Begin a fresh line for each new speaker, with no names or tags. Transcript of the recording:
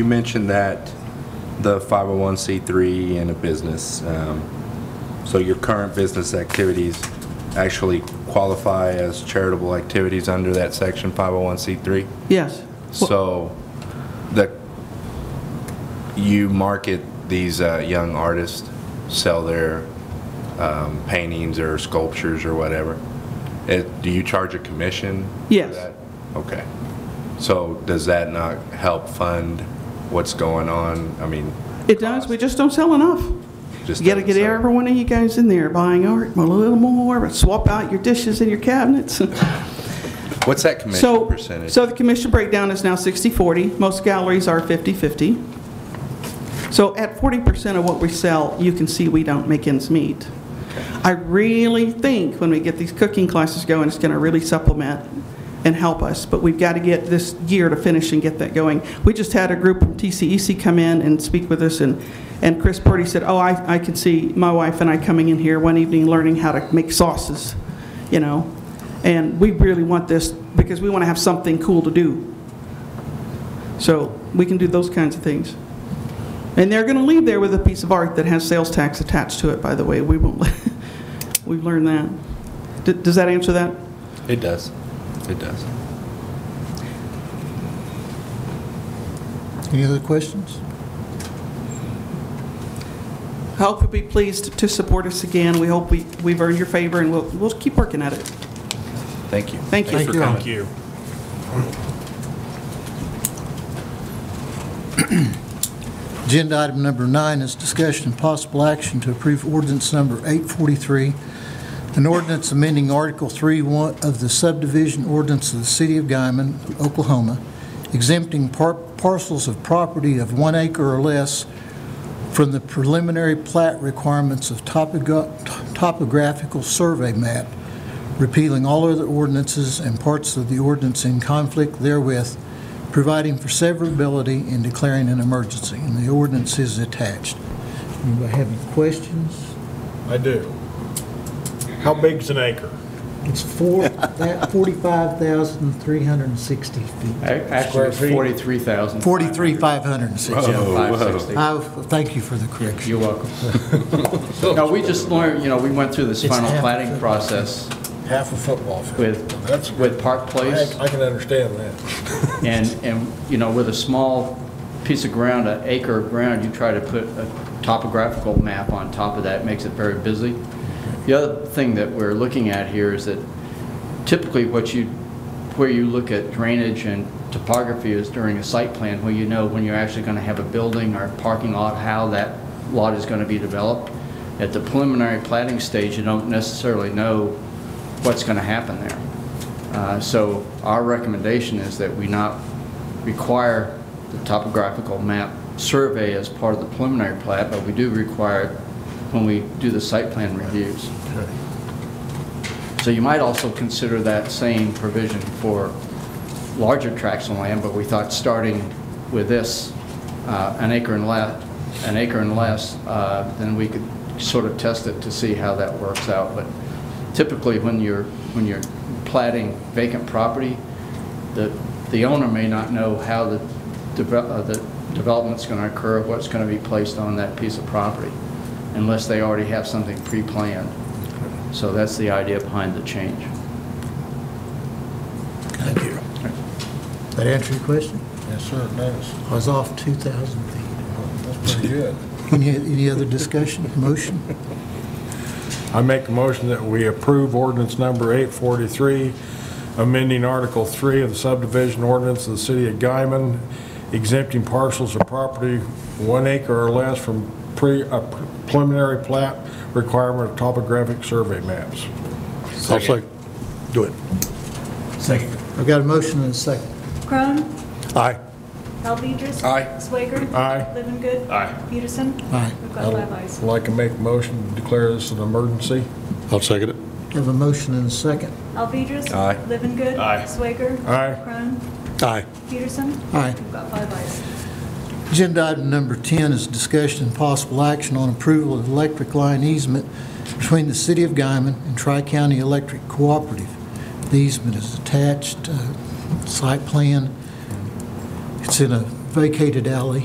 You mentioned that the 501c3 and a business, um, so your current business activities actually qualify as charitable activities under that section 501c3?
Yes.
So the, you market these uh, young artists, sell their um, paintings or sculptures or whatever. It- Do you charge a commission? for
Yes.
that? Okay. So does that not help fund what's going on? I mean,
It does, we just don't sell enough.
just.
You gotta
doesn't
get
sound-
every one of you guys in there buying art, a little more, swap out your dishes and your cabinets.
What's that commission
So,
percentage?
so the commission breakdown is now 60/40. Most galleries are 50/50. So at 40% of what we sell, you can see we don't make ends meet. I really think when we get these cooking classes going, it's going to really supplement and help us, but we've got to get this year to finish and get that going. We just had a group from TCEC come in and speak with us, and, and Chris Purdy said, oh, I, I can see my wife and I coming in here one evening, learning how to make sauces, you know? And we really want this, because we want to have something cool to do. So we can do those kinds of things. And they're going to leave there with a piece of art that has sales tax attached to it, by the way. We won't, let- we've learned that. D- Does that answer that?
It does. It does.
Any other questions?
I hope you'll be pleased to support us again. We hope we, we've earned your favor, and we'll, we'll keep working at it.
Thank you.
Thank
Thank
you.
you.
Thank you.
Agenda item number nine is discussion and possible action to approve ordinance number 843, an ordinance amending Article 3 one- of the subdivision ordinance of the City of Guyman, Oklahoma, exempting par- parcels of property of one acre or less from the preliminary plat requirements of topogra- topographical survey map, repealing all other ordinances and parts of the ordinance in conflict therewith, providing for severability and declaring an emergency. And the ordinance is attached. Anybody have any questions?
I do. How big's an acre?
It's four, that 45,360 feet.
Actually, it's 43,000.
43,560.
Yeah, 560.
I Thank you for the correction.
You're welcome. No, we just learned, you know, we went through this
It's
final
half a
planning
foot.
process
Half a football field.
with,
That's-
with Park Place,
I I can understand that.
and, and, you know, with a small piece of ground, an acre of ground, you try to put a topographical map on top of that, makes it very busy. The other thing that we're looking at here is that typically what you, where you look at drainage and topography is during a site plan, where you know when you're actually going to have a building or parking lot, how that lot is going to be developed. At the preliminary planning stage, you don't necessarily know what's going to happen there. Uh, So our recommendation is that we not require the topographical map survey as part of the preliminary plat, but we do require it when we do the site plan reviews. So you might also consider that same provision for larger tracts of land, but we thought starting with this, uh, an acre and less, an acre and less, uh, then we could sort of test it to see how that works out. But typically, when you're, when you're platting vacant property, the, the owner may not know how the, deve- uh, the development's going to occur, what's going to be placed on that piece of property, unless they already have something pre-planned. So that's the idea behind the change.
Thank you. That answer your question?
Yes, sir, it does.
I was off 2,000 feet.
That's pretty good.
Any any other discussion, motion?
I make a motion that we approve ordinance number 843, amending Article 3 of the subdivision ordinance of the city of Guyman, exempting parcels of property one acre or less from pre, a preliminary plat requirement of topographic survey maps.
Second. Do it.
Second.
I've got a motion and a second.
Crone,
Aye.
Alvedras.
Aye.
Swager.
Aye.
Livengood. Aye. Peterson.
Aye.
We've got five ayes.
I'd like to make a motion to declare this an emergency.
I'll second it.
Have a motion and a second.
Alvedras.
Aye.
Livengood. Aye. Swager.
Aye.
Crone,
Aye.
Peterson.
Aye.
We've got five ayes.
Agenda item number 10 is discussion and possible action on approval of electric line easement between the City of Guyman and Tri-County Electric Cooperative. The easement is attached, uh, site plan. It's in a vacated alley.